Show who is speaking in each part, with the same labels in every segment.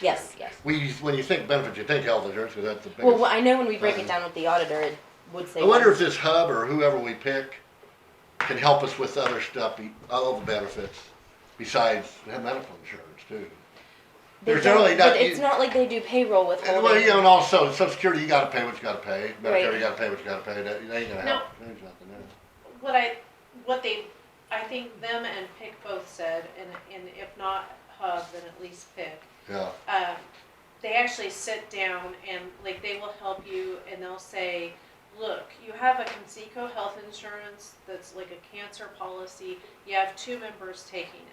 Speaker 1: Yes, yes.
Speaker 2: We, when you think benefits, you think health insurance, because that's the biggest.
Speaker 1: Well, I know when we break it
Speaker 2: Um,
Speaker 1: down with the auditor, it would say.
Speaker 2: I wonder
Speaker 1: one-
Speaker 2: if this hub or whoever we pick can help us with other stuff, be- all the benefits besides the medical insurance too.
Speaker 1: they
Speaker 2: there's
Speaker 1: don't-
Speaker 2: really not-
Speaker 1: But it's not like they do payroll
Speaker 2: And well, you know,
Speaker 1: withholding.
Speaker 2: and also Social Security, you gotta pay what you gotta pay. Medicare, you
Speaker 1: Right.
Speaker 2: gotta pay what you gotta pay. That, that ain't gonna
Speaker 3: No.
Speaker 2: help. There's nothing there.
Speaker 3: What I, what they, I think them and Pick both said, and, and if not Hub, then at least Pick.
Speaker 2: Yeah.
Speaker 3: um, they actually sit down and like they will help you and they'll say, look, you have a Conseco health insurance that's like a cancer policy. You have two members taking it.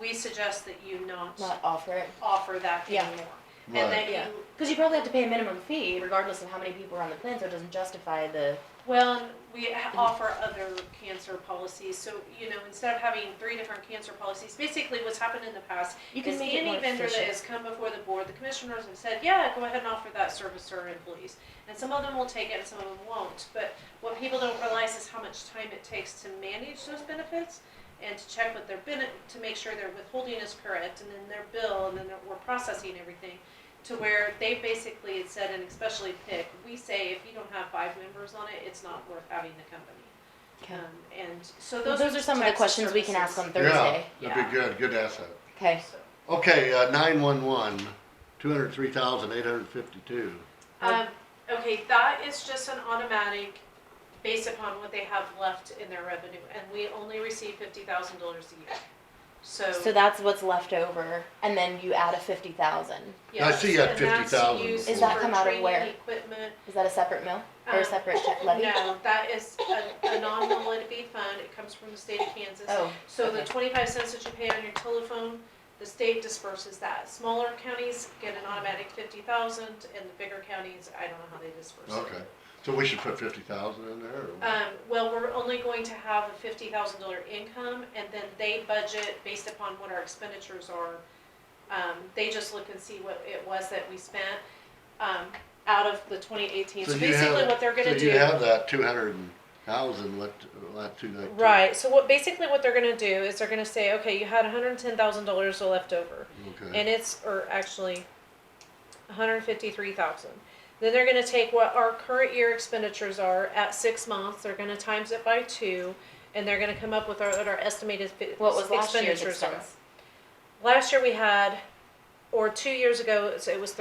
Speaker 3: We suggest that you not,
Speaker 1: Not offer it.
Speaker 3: offer that
Speaker 1: Yeah.
Speaker 3: anymore.
Speaker 2: Right.
Speaker 3: And that
Speaker 1: Yeah.
Speaker 3: you,
Speaker 1: Because you probably have to pay a minimum fee regardless of how many people are on the plan, so it doesn't justify the.
Speaker 3: well, and we ha- offer other cancer policies. So, you know, instead of having three different cancer policies, basically what's happened in the past
Speaker 1: You can
Speaker 3: Because
Speaker 1: make it more
Speaker 3: any vendor that
Speaker 1: efficient.
Speaker 3: has come before the board, the commissioners have said, yeah, go ahead and offer that service to our employees. And some of them will take it and some of them won't, but what people don't realize is how much time it takes to manage those benefits and to check with their benefit, to make sure their withholding is correct and then their bill and then their- we're processing everything. To where they basically had said, and especially pick, we say if you don't have five members on it, it's not worth having the company.
Speaker 1: Okay.
Speaker 3: Um, and so
Speaker 1: Well,
Speaker 3: those.
Speaker 1: those are some of the
Speaker 3: types
Speaker 1: questions we can
Speaker 3: services.
Speaker 1: ask on
Speaker 2: Yeah,
Speaker 1: Thursday.
Speaker 2: that'd be good. Good asset.
Speaker 1: Okay.
Speaker 3: So-
Speaker 2: Okay, uh, nine one one, two hundred three thousand eight hundred fifty-two.
Speaker 3: Um, okay, that is just an automatic based upon what they have left in their revenue, and we only receive fifty thousand dollars a year. So.
Speaker 1: So that's what's left over, and then you add a fifty thousand.
Speaker 2: I see you had
Speaker 3: yes, and that's
Speaker 2: 50,000
Speaker 3: used
Speaker 2: Does
Speaker 1: that
Speaker 3: for
Speaker 1: come out of
Speaker 3: training
Speaker 1: where?
Speaker 3: Equipment.
Speaker 1: Is that a separate mill or a
Speaker 3: Um,
Speaker 1: separate levy?
Speaker 3: No, that is a, a non-levy fund, it comes from the state of Kansas.
Speaker 1: Oh.
Speaker 3: So the
Speaker 1: okay.
Speaker 3: twenty-five cents that you pay on your telephone, the state disperses that. Smaller counties get an automatic fifty thousand, and the bigger counties, I don't know how they disperse it.
Speaker 2: Okay, so we should put fifty thousand in there? or what?
Speaker 3: Um, well, we're only going to have a fifty thousand dollar income, and then they budget based upon what our expenditures are. Um, they just look and see what it was that we spent, um, out of the twenty eighteen,
Speaker 2: So
Speaker 3: so
Speaker 2: you
Speaker 3: basically
Speaker 2: have-
Speaker 3: what they're gonna do.
Speaker 2: So you have that two hundred thousand left, left to like.
Speaker 3: Right, so what, basically what they're gonna do is they're gonna say, okay, you had hundred and ten thousand dollars left over.
Speaker 2: Okay,
Speaker 3: and it's or actually 153,000. Then they're going to take what our current year expenditures are at 6 months, they're going to times it by 2 and they're going to come up with our, what our estimated fi-
Speaker 1: What was last year's
Speaker 3: expenditures are.
Speaker 1: expense?
Speaker 3: Last year we had or 2 years ago so it was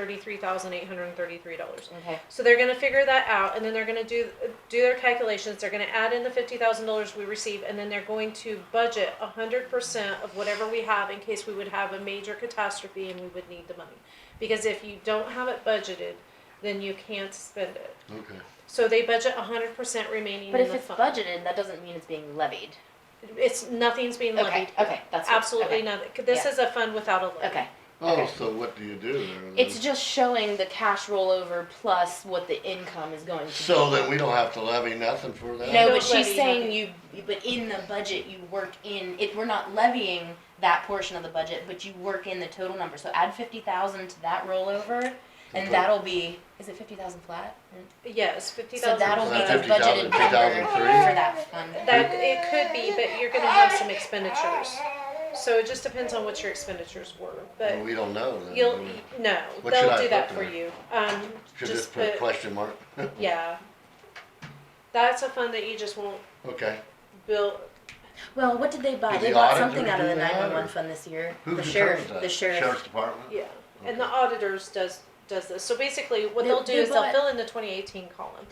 Speaker 3: $33,833.
Speaker 1: Okay.
Speaker 3: So they're gonna figure that out, and then they're gonna do, do their calculations, they're gonna add in the fifty thousand dollars we receive, and then they're going to budget a hundred percent of whatever we have in case we would have a major catastrophe and we would need the money. Because if you don't have it budgeted, then you can't spend it.
Speaker 2: okay.
Speaker 3: So they budget a hundred percent remaining in
Speaker 1: But
Speaker 3: the
Speaker 1: if
Speaker 3: fund.
Speaker 1: it's budgeted, that doesn't mean it's being levied.
Speaker 3: It's, nothing's being
Speaker 1: Okay.
Speaker 3: levied.
Speaker 1: Okay. That's what-
Speaker 3: Absolutely
Speaker 1: okay.
Speaker 3: nothing, this
Speaker 1: Yeah.
Speaker 3: is a fund without a levy.
Speaker 1: Okay.
Speaker 2: Oh,
Speaker 1: Okay.
Speaker 2: so what do you do there?
Speaker 1: It's
Speaker 2: then?
Speaker 1: just showing the cash rollover plus what the income is going to be.
Speaker 2: So that we don't have to levy nothing for that?
Speaker 1: No,
Speaker 3: Don't
Speaker 1: but she's
Speaker 3: levy
Speaker 1: saying you, but in the budget, you work in, it, we're not levying that portion of the budget, but you work in the total number, so add fifty thousand to that rollover,
Speaker 2: Okay.
Speaker 1: and that'll be, is it fifty thousand flat?
Speaker 3: Yes, fifty
Speaker 1: So
Speaker 3: thousand.
Speaker 1: that'll be
Speaker 2: Is that
Speaker 1: the budgeted
Speaker 2: 50,000,
Speaker 1: number for
Speaker 2: 2003?
Speaker 1: that fund.
Speaker 3: That it could be, but you're gonna have some expenditures. So it just depends on what your expenditures were,
Speaker 2: Well,
Speaker 3: but
Speaker 2: we don't know then.
Speaker 3: you'll, e,
Speaker 2: do we?
Speaker 3: no,
Speaker 2: What should
Speaker 3: they'll
Speaker 2: I
Speaker 3: do that
Speaker 2: put
Speaker 3: for
Speaker 2: there?
Speaker 3: you. Um,
Speaker 2: Should just
Speaker 3: just
Speaker 2: put a
Speaker 3: put,
Speaker 2: question mark?
Speaker 3: yeah. That's a fund that you just won't
Speaker 2: Okay,
Speaker 3: bill,
Speaker 1: Well, what did they buy?
Speaker 2: Did
Speaker 1: They
Speaker 2: the
Speaker 1: bought
Speaker 2: auditor
Speaker 1: something out of
Speaker 2: do
Speaker 1: the
Speaker 2: that, or-
Speaker 1: nine-one-one fund this year,
Speaker 2: who
Speaker 1: the
Speaker 2: determines
Speaker 1: sheriff,
Speaker 2: that?
Speaker 1: the sheriff.
Speaker 2: Sheriff's Department?
Speaker 3: yeah. And the auditors does, does this. So basically, what
Speaker 1: They-
Speaker 3: they'll do
Speaker 1: they
Speaker 3: is they'll
Speaker 1: bought-
Speaker 3: fill in the twenty eighteen column.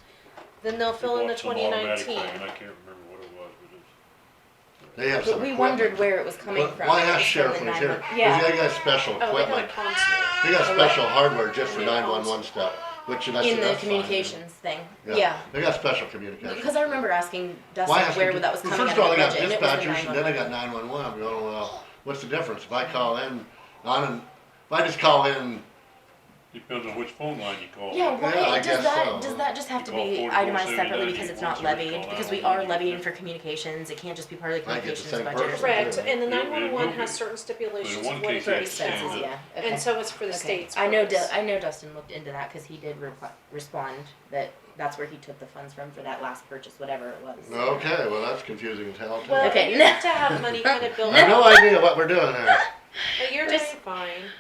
Speaker 3: Then they'll fill in the
Speaker 4: Bought some
Speaker 3: twenty
Speaker 4: automatic
Speaker 3: nineteen.
Speaker 4: thing, and I can't remember what it was, but it's.
Speaker 2: They have
Speaker 1: But
Speaker 2: some
Speaker 1: we
Speaker 2: equipment.
Speaker 1: wondered where it was coming
Speaker 2: Why-
Speaker 1: from.
Speaker 2: Why
Speaker 1: It was
Speaker 2: ask
Speaker 1: from
Speaker 2: sheriff
Speaker 1: the
Speaker 2: when he's here?
Speaker 1: 911.
Speaker 2: Because
Speaker 1: Yeah,
Speaker 2: they got special
Speaker 3: Oh, they got a
Speaker 2: equipment.
Speaker 3: constant.
Speaker 2: They got special hardware just for nine-one-one stuff, which that's.
Speaker 1: in
Speaker 2: that's
Speaker 1: the
Speaker 2: fine.
Speaker 1: communications thing, yeah.
Speaker 2: They got special communications.
Speaker 1: Because I remember asking Dustin
Speaker 2: Why ask
Speaker 1: where
Speaker 2: them-
Speaker 1: that was
Speaker 2: well,
Speaker 1: coming out of
Speaker 2: First
Speaker 1: the
Speaker 2: of all, they got
Speaker 1: budget, and it was the
Speaker 2: dispatchers, and then they
Speaker 1: 911.
Speaker 2: got nine-one-one, I'm going, well, what's the difference, if I call in, on, an- if I just call in
Speaker 4: depends on which phone line you call.
Speaker 1: Yeah, why,
Speaker 2: Yeah, I guess
Speaker 1: does that,
Speaker 2: so.
Speaker 1: does that just have to
Speaker 4: You call
Speaker 1: be
Speaker 4: 44,
Speaker 1: itemized
Speaker 4: 79,
Speaker 1: separately because it's not
Speaker 4: 81, so it's
Speaker 1: levied,
Speaker 4: called
Speaker 1: because
Speaker 4: out
Speaker 1: we
Speaker 4: on
Speaker 1: are
Speaker 4: the-
Speaker 1: levying for communications, it can't just be part of the
Speaker 2: I get the
Speaker 1: communications
Speaker 2: same
Speaker 1: budget or
Speaker 2: person.
Speaker 1: something.
Speaker 3: Correct, and the
Speaker 4: Yeah,
Speaker 3: nine
Speaker 4: it will
Speaker 3: one one
Speaker 4: be.
Speaker 3: has certain stipulations
Speaker 4: But
Speaker 3: of
Speaker 4: in one
Speaker 3: what
Speaker 4: case,
Speaker 1: For
Speaker 3: it
Speaker 4: it's
Speaker 3: is.
Speaker 4: standard.
Speaker 1: expenses, yeah, okay.
Speaker 3: And so it's for the
Speaker 1: Okay.
Speaker 3: state's.
Speaker 1: I know,
Speaker 3: purpose.
Speaker 1: Du- I know Dustin looked into that, cause he did repl- respond that that's where he took the funds from for that last purchase, whatever it was.
Speaker 2: Okay, well, that's confusing as hell. too.
Speaker 3: Well,
Speaker 1: Okay.
Speaker 3: you have to have money kind of
Speaker 2: I
Speaker 3: built
Speaker 2: have
Speaker 3: up,
Speaker 2: no idea what we're doing here.
Speaker 3: but you're doing
Speaker 1: Just-
Speaker 3: fine.